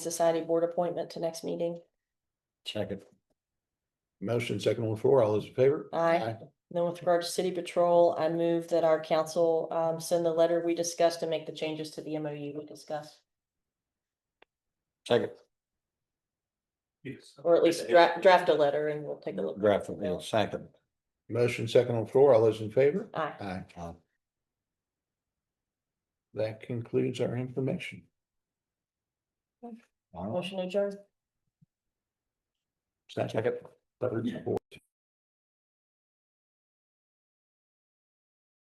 Society Board appointment to next meeting. Second. Motion second on the floor. All those in favor? Aye. Then with regard to city patrol, I move that our council um send the letter we discussed and make the changes to the MOU we discussed. Second Yes. Or at least draft, draft a letter and we'll take a look. draft, you know, second. Motion second on the floor. All those in favor? Aye. Aye. Aye. That concludes our information. All right. Motion adjourned. Second, Second. third, fourth.